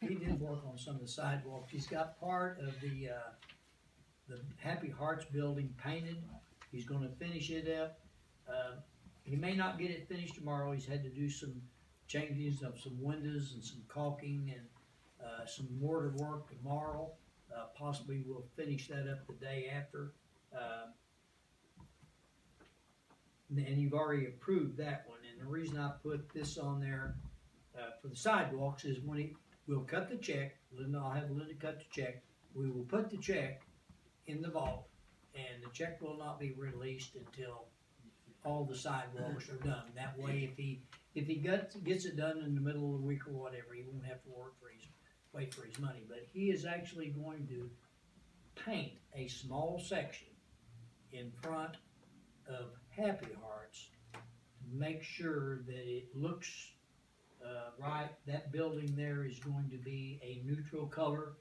he did work on some of the sidewalks, he's got part of the, uh, the Happy Hearts building painted, he's gonna finish it up. Uh, he may not get it finished tomorrow, he's had to do some changes of some windows and some caulking and, uh, some mortar work tomorrow. Uh, possibly we'll finish that up the day after, um, and you've already approved that one, and the reason I put this on there, uh, for the sidewalks is when he, we'll cut the check, Linda, I'll have Linda cut the check, we will put the check in the vault, and the check will not be released until all the sidewalks are done, that way if he, if he gets, gets it done in the middle of the week or whatever, he won't have to work for his, wait for his money, but he is actually going to paint a small section in front of Happy Hearts to make sure that it looks uh, right. That building there is going to be a neutral color,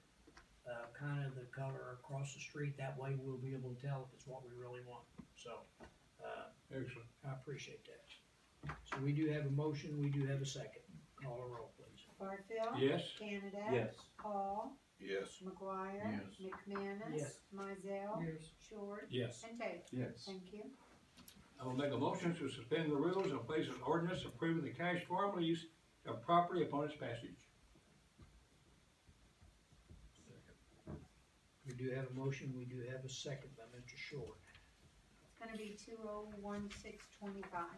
uh, kind of the color across the street. That way we'll be able to tell if it's what we really want. So uh, Excellent. I appreciate that. So we do have a motion, we do have a second. Call a roll, please. Barfield. Yes? Canada. Yes. Paul. Yes. McGuire. Yes. McManus. Yes. Mizell. Yes. Short. Yes. And Taylor. Yes. Thank you. I will make a motion to suspend the rules and place an ordinance approving the cash farm lease of property upon its passage. We do have a motion, we do have a second by Mr. Short. It's gonna be two oh one six twenty-five.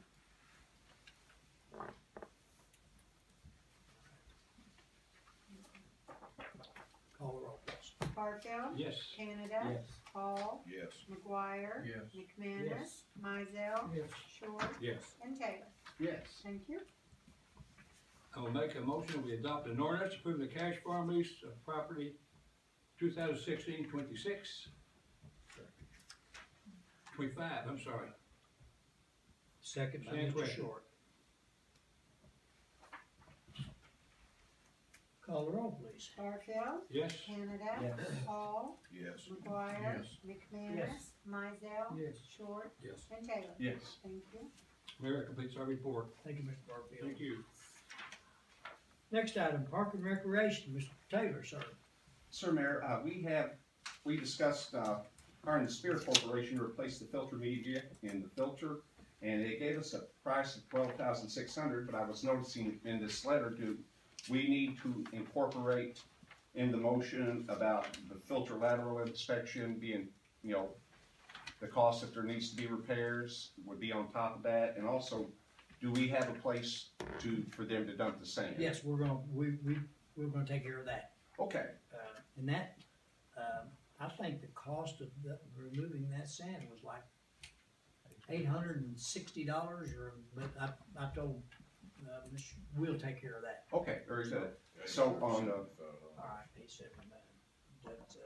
Call a roll, please. Barfield. Yes. Canada. Paul. Yes. McGuire. Yes. McManus. Yes. Mizell. Yes. Short. Yes. And Taylor. Yes. Thank you. I will make a motion, we adopt an ordinance approving the cash farm lease of property 2016-26. Twenty-five, I'm sorry. Second by Same Mr. question. Short. Call the roll, please. Barfield. Yes? Canada. Paul. Yes. McGuire. McManus. Mizell. Yes. Short. Yes. And Taylor. Yes. Thank you. Mayor completes our report. Thank you, Mr. Barfield. Thank you. Next item, Park and Recreation, Mr. Taylor, sir. Sir Mayor, uh, we have, we discussed, uh, hiring the Spear Corporation to replace the filter media in the filter. And they gave us a price of twelve thousand six hundred, but I was noticing in this letter, do, we need to incorporate in the motion about the filter lateral inspection being, you know, the cost if there needs to be repairs would be on top of that, and also, do we have a place to, for them to dump the sand? Yes, we're gonna, we, we, we're gonna take care of that. Okay, Uh, And that, um, I think the cost of the- removing that sand was like eight hundred and sixty dollars or, but I, I told, uh, Mr. we'll take care of that. okay, very good. So um, on the All right, he said, uh, that, uh,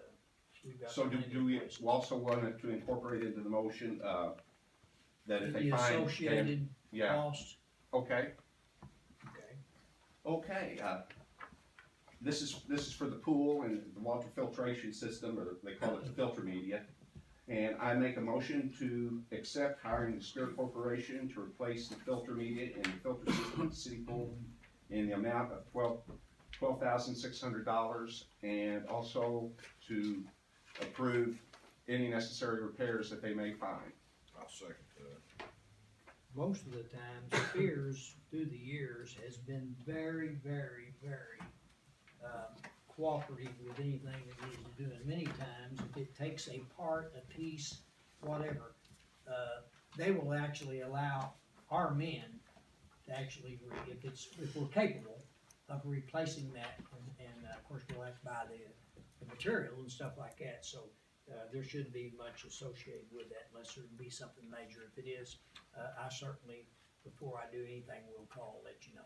we've got. So do, plenty do we of places. also want it to incorporate into the motion, uh, that if they The find, them- associated yeah, cost, okay, okay, okay, uh, this is, this is for the pool and the water filtration system, or they call it the filter media. And I make a motion to accept hiring the Spirit Corporation to replace the filter media and the filter system at the city pool in the amount of twelve, twelve thousand six hundred dollars, and also to approve any necessary repairs that they may find. I'll second that. most of the time, Spears through the years has been very, very, very, um, cooperative with anything it needs to do, and many times, if it takes a part, a piece, whatever, uh, they will actually allow our men to actually, re- if it's, if we're capable of replacing that, and, and uh, of course, we'll have to buy the, the material and stuff like that, so, uh, there shouldn't be much associated with that unless there'd be something major. If it is, uh, I certainly, before I do anything, will call, let you know.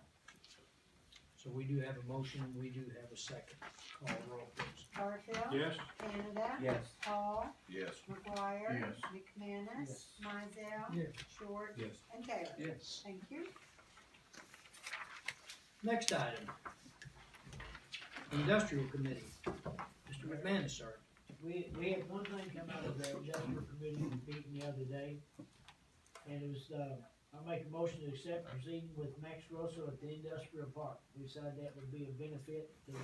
So we do have a motion, we do have a second. Call roll, please. Barfield. Yes? Canada. Yes. Paul. Yes. McGuire. Yes. McManus. Yes. Mizell. Yes. Short. Yes. And Taylor. Yes. Thank you. Next item. Industrial Committee. Mr. McManus, sir. We, we had one thing come out of the industrial committee meeting the other day, and it was, uh, I make a motion to accept proceeding with Max Russell at the industrial park. We decided that would be a benefit to the